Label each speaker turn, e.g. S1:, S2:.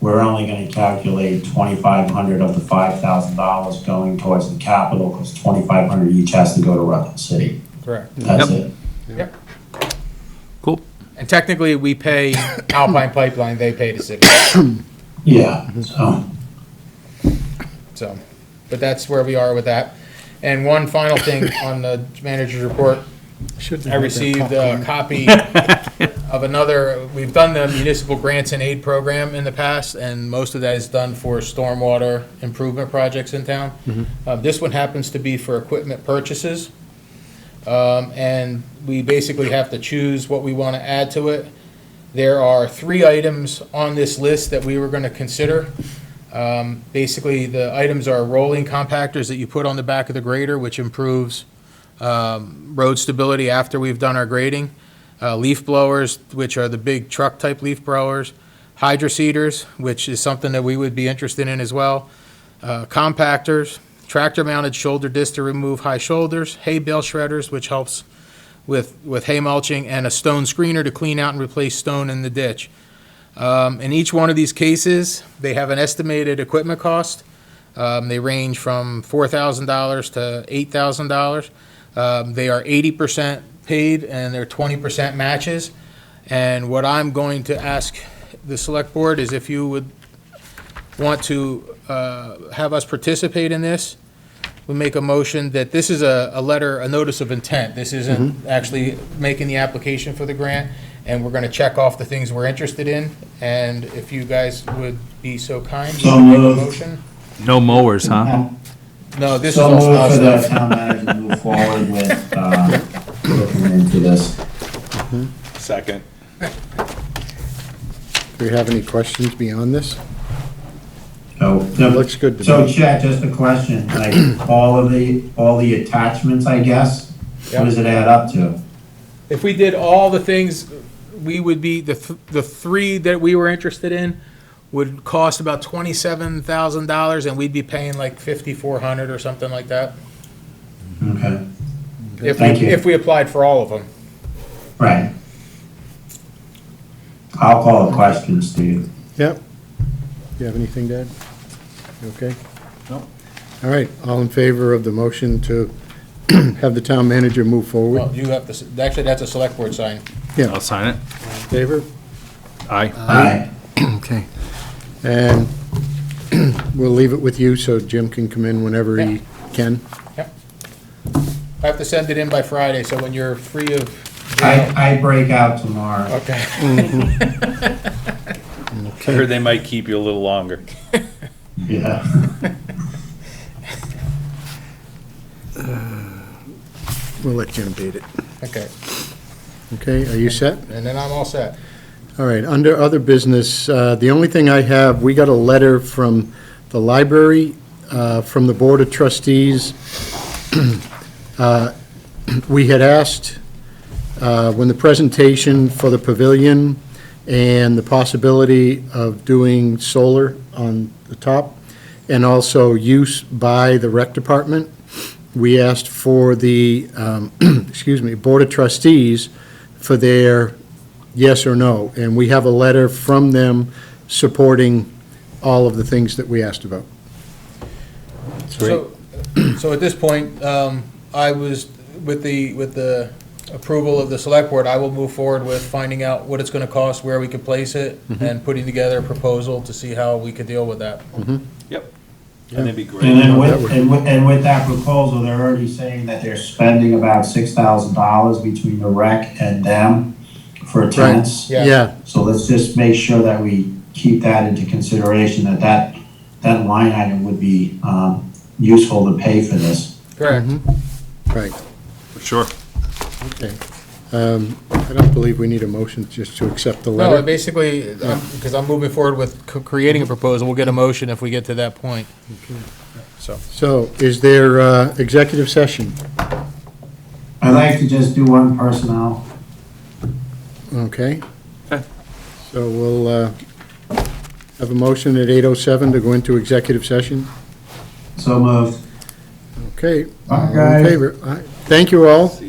S1: we're only gonna calculate twenty-five hundred of the five thousand dollars going towards the capital, because twenty-five hundred each has to go to Rutland City.
S2: Correct.
S1: That's it.
S3: Cool.
S2: And technically, we pay Alpine Pipeline, they pay the city,
S1: Yeah, so,
S2: so, but that's where we are with that. And one final thing on the manager's report, I received a copy of another, we've done the municipal grants and aid program in the past, and most of that is done for stormwater improvement projects in town. Uh, This one happens to be for equipment purchases. Um, And we basically have to choose what we want to add to it. There are three items on this list that we were going to consider. Um, Basically, the items are rolling compactors that you put on the back of the grader, which improves um, road stability after we've done our grading, uh, leaf blowers, which are the big truck-type leaf blowers, hydro seeders, which is something that we would be interested in as well, uh, compactors, tractor-mounted shoulder disc to remove high shoulders, hay bale shredders, which helps with, with hay mulching, and a stone screener to clean out and replace stone in the ditch. Um, In each one of these cases, they have an estimated equipment cost. Um, They range from $4,000 to $8,000. Um, They are 80% paid and they're 20% matches. And what I'm going to ask the select board is if you would want to uh, have us participate in this, we make a motion that this is a, a letter, a notice of intent. This isn't
S1: Mm-hmm.
S2: actually making the application for the grant, and we're gonna check off the things we're interested in. And if you guys would be so kind, you
S1: So
S2: can make a
S1: moved.
S2: motion.
S3: No mowers, huh?
S2: No, this is
S1: so
S2: all
S1: move
S2: small
S1: for the
S2: stuff.
S1: town manager to move forward with, uh, looking into this.
S4: Second.
S5: Do you have any questions beyond this?
S1: So,
S5: It looks good to
S1: So
S5: me.
S1: Chad, just a question, like, all of the, all the attachments, I guess, what
S2: Yep.
S1: does it add up to?
S2: If we did all the things, we would be, the, th- the three that we were interested in would cost about twenty-seven thousand dollars, and we'd be paying like fifty-four hundred or something like that.
S1: Okay,
S2: If, we-
S1: Thank you.
S2: if we applied for all of them.
S1: right. I'll call a question, Steve.
S5: Yep. Do you have anything, Dad? You okay? No. All right, all in favor of the motion to have the town manager move forward?
S2: Well, you have to, s- actually, that's a select board sign.
S3: I'll sign it.
S5: Favor?
S3: Aye.
S1: Aye.
S5: Okay. And we'll leave it with you so Jim can come in whenever he can.
S2: I have to send it in by Friday, so when you're free of jail.
S1: I, I break out tomorrow.
S2: Okay.
S4: I heard they might keep you a little longer.
S1: Yeah.
S5: We'll let Jim beat it.
S2: Okay,
S5: Okay, are you set?
S2: and then I'm all set.
S5: All right, under other business, uh, the only thing I have, we got a letter from the library, uh, from the Board of Trustees. Uh, We had asked, uh, when the presentation for the pavilion and the possibility of doing solar on the top, and also use by the rec department, we asked for the, um, excuse me, Board of Trustees for their yes or no, and we have a letter from them supporting all of the things that we asked about.
S2: So, so at this point, um, I was, with the, with the approval of the select board, I will move forward with finding out what it's gonna cost, where we could place it, and putting together a proposal to see how we could deal with that.
S4: Yep. And that'd be
S1: And
S4: great.
S1: then with, and with, and with that proposal, they're already saying that they're spending about six thousand dollars between the rec and them for tents.
S2: Yeah.
S1: So let's just make sure that we keep that into consideration, that that, that line item would be, um, useful to pay for this.
S5: Mm-hmm.
S2: Correct.
S5: right,
S3: Sure.
S5: okay. Um, I don't believe we need a motion just to accept the
S2: No,
S5: letter.
S2: basically, because I'm moving forward with c- creating a proposal, we'll get a motion if we get to that point. So,
S5: So is there uh, executive session?
S1: I'd like to just do one personnel.
S5: Okay. So we'll uh, have a motion at 8:07 to go into executive session.
S1: So moved.
S5: Okay.
S1: Bye,
S5: all in
S1: guys.
S5: favor? All right. Thank you all.
S4: See